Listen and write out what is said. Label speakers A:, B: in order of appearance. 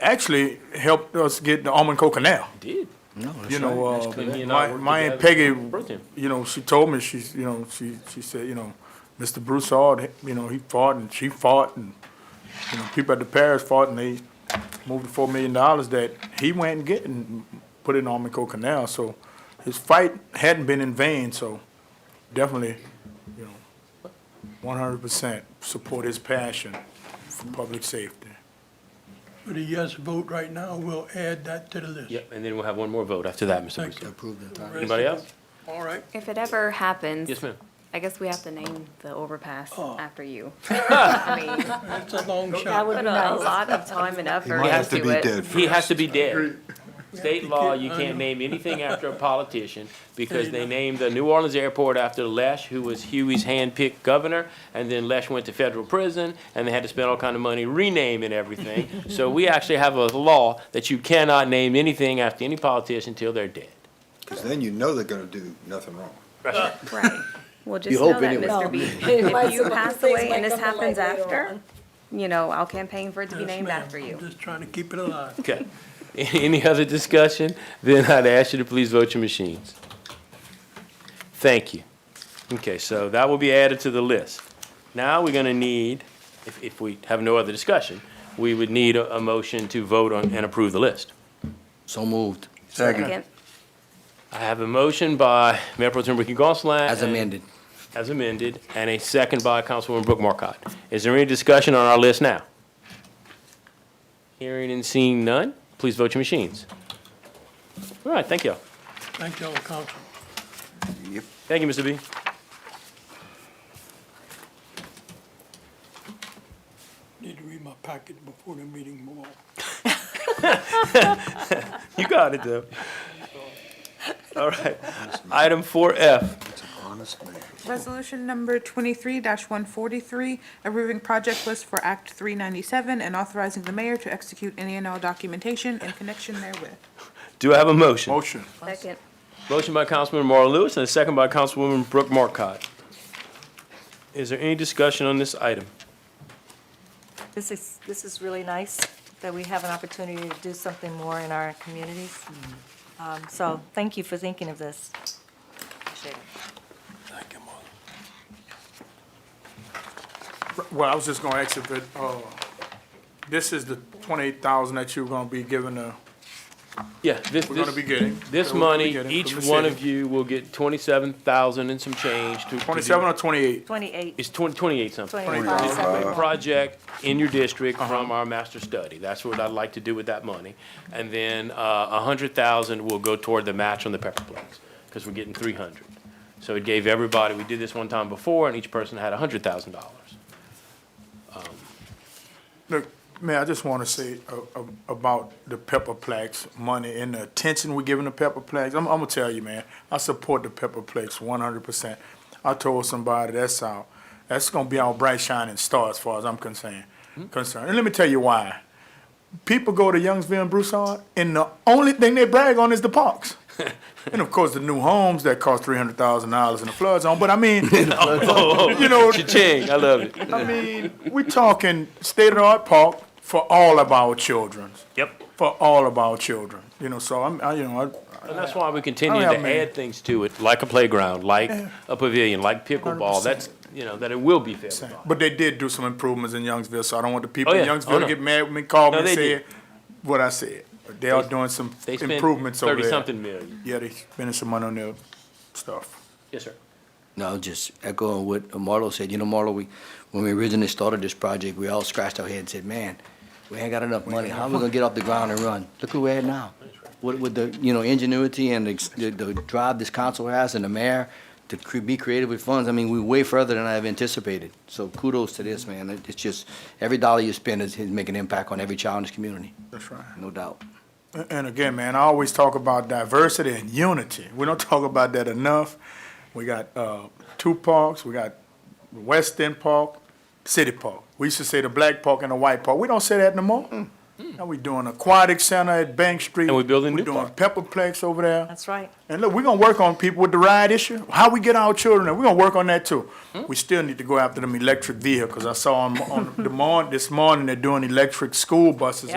A: actually helped us get the Almanco Canal.
B: Did.
A: You know, uh,
B: correct. He and I
A: my,
B: worked
A: my aunt Peggy,
B: together. Brilliant.
A: you know, she told me, she's, you know, she, she said, you know, Mr. Broussard, you know, he fought and she fought and, you know, people at the parish fought and they moved the four million dollars that he went and get and put in Almanco Canal, so his fight hadn't been in vain, so definitely, you know, one hundred percent support his passion for public safety.
C: But a yes vote right now will add that to the list.
B: Yep, and then we'll have one more vote after that, Mr.
C: Thank you.
B: Broussard.
D: Approve the entire.
B: Anybody else?
C: All right.
E: If it ever happens.
B: Yes, ma'am.
E: I guess we have to name the overpass
C: Oh.
E: after you. I mean,
C: That's a long
E: that
C: shot.
E: would put a lot of time and effort
D: Might have to be
E: into
D: dead
E: it.
D: for
B: He has to be dead. State
C: Yeah,
B: law,
C: I
B: you can't
C: know.
B: name anything after a politician because
C: you
B: they
C: know.
B: named the New Orleans airport after Lesh, who was Huey's handpicked governor, and then Lesh went to federal prison, and they had to spend all kind of money renaming everything. So we actually have a law that you cannot name anything after any politician until they're dead.
D: Because then you know they're gonna do nothing wrong.
E: Right. Well, just
D: You
E: know
D: hope
E: that,
D: anyway.
E: Mr.
F: No.
E: B.
F: Might
E: If you
F: some-
E: pass
F: things
E: away
F: might
E: and this
F: come to light
E: happens
F: later
E: after,
F: on.
E: you know, I'll campaign for it to be
C: Yes,
E: named
C: ma'am.
E: after you.
C: I'm just trying to keep it alive.
B: Okay. Any other discussion? Then I'd ask you to please vote your machines. Thank you. Okay, so that will be added to the list. Now we're gonna need, if, if we have no other discussion, we would need a, a motion to vote on and approve the list.
G: So moved,
E: Second.
B: I have a motion by Mayor Pro Tem Ricky Gonsalas.
A: Uh-uh.
G: as amended.
B: As amended, and a second by Councilwoman Brooke Marcotte. Is there any discussion on our list now? Hearing and seeing none, please vote your machines. All right, thank you.
C: Thank you, all council.
B: Thank you, Mr. B.
C: Need to read my packet before the meeting more.
B: You got it, though. All right. Item four F.
D: It's an honest man.
H: Resolution number twenty-three one forty-three, approving project list for Act three ninety-seven and authorizing the mayor to execute any and all documentation in connection therewith.
B: Do I have a motion?
A: Motion.
E: Second.
B: Motion by Councilman Marl Lewis and a second by Councilwoman Brooke Marcotte. Is there any discussion on this item?
F: This is, this is really nice that we have an opportunity to do something more in our communities. Um, So thank you for thinking of this. Appreciate it.
C: Thank you, Mark.
A: Well, I was just gonna ask if it, uh, this is the twenty-eight thousand that you're gonna be giving the,
B: Yeah, this,
A: we're gonna
B: this,
A: be getting.
B: this
A: that we're gonna be
B: money,
A: getting
B: each
A: from the
B: one
A: city.
B: of you will get twenty-seven thousand and some change to- to. do-
A: Twenty-seven or twenty-eight?
F: 28,
B: It's twenty, twenty-eight something.
F: 25,
B: a
F: separate.
B: project in your district
A: Uh-huh.
B: from our master study. That's what I'd like to do with that money. And then uh, a hundred thousand will go toward the match on the Pepperplex, because we're getting three hundred. So it gave everybody, we did this one time before, and each person had a hundred thousand dollars.
A: Look, man, I just wanna say a- a- about the Pepperplex money and the attention we're giving the Pepperplex. I'm, I'm gonna tell you, man, I support the Pepperplex one hundred percent. I told somebody that's our, that's gonna be our bright shining star as far as I'm concerned, concerned. And let me tell you why. People go to Youngsville and Broussard, and the only thing they brag on is the parks. And of course, the new homes that cost three hundred thousand dollars in the flood zone. But I mean, you know,
B: Cha-ching, I love it.
A: I mean, we're talking state of the art park for all of our children.
B: Yep.
A: For all of our children, you know. So I'm, I, you know, I,
B: And that's why we continue
A: I don't
B: to
A: have many.
B: add things to it, like a playground, like a pavilion, like pickleball.
A: 100%.
B: That's, you know, that it will be fair. to all.
A: but they did do some improvements in Youngsville, so I don't want the people
B: Oh,
A: in
B: yeah. Oh,
A: Youngsville to
B: no.
A: get mad with me, call
B: No,
A: me,
B: they
A: and say what I said. But They are
B: They-
A: doing some
B: They spent
A: improvements over there.
B: Thirty-something million.
A: Yeah, they spending some money on their stuff.
B: Yes, sir.
G: No, just echoing what Marlo said. You know, Marlo, we, when we originally started this project, we all scratched our head and said, man, we ain't got enough money. How we gonna get off the ground and run? Look who we're at now. With, with the, you know, ingenuity and the, the drive this council has and the mayor to cre- be creative with funds, I mean, we way further than I've anticipated. So kudos to this, man. It- It's just, every dollar you spend is, is making an impact on every child in this community,
A: That's right.
G: no doubt.
A: And again, man, I always talk about diversity and unity. We don't talk about that enough. We got uh, two parks. We got West End Park, City Park. We used to say the black park and the white park. We don't say that no more.
F: Mm.
A: Mm. Now we doing aquatic center at Bank Street.
B: And we building new
A: We're doing Pepperplex over there.
F: that's right.
A: And look, we're gonna work on people with the ride issue, how we get our children, there. we're gonna work on that too.
F: Mm.
A: We still need to go after them electric vehicles. I saw 'em on the morning, this morning, they're doing electric school buses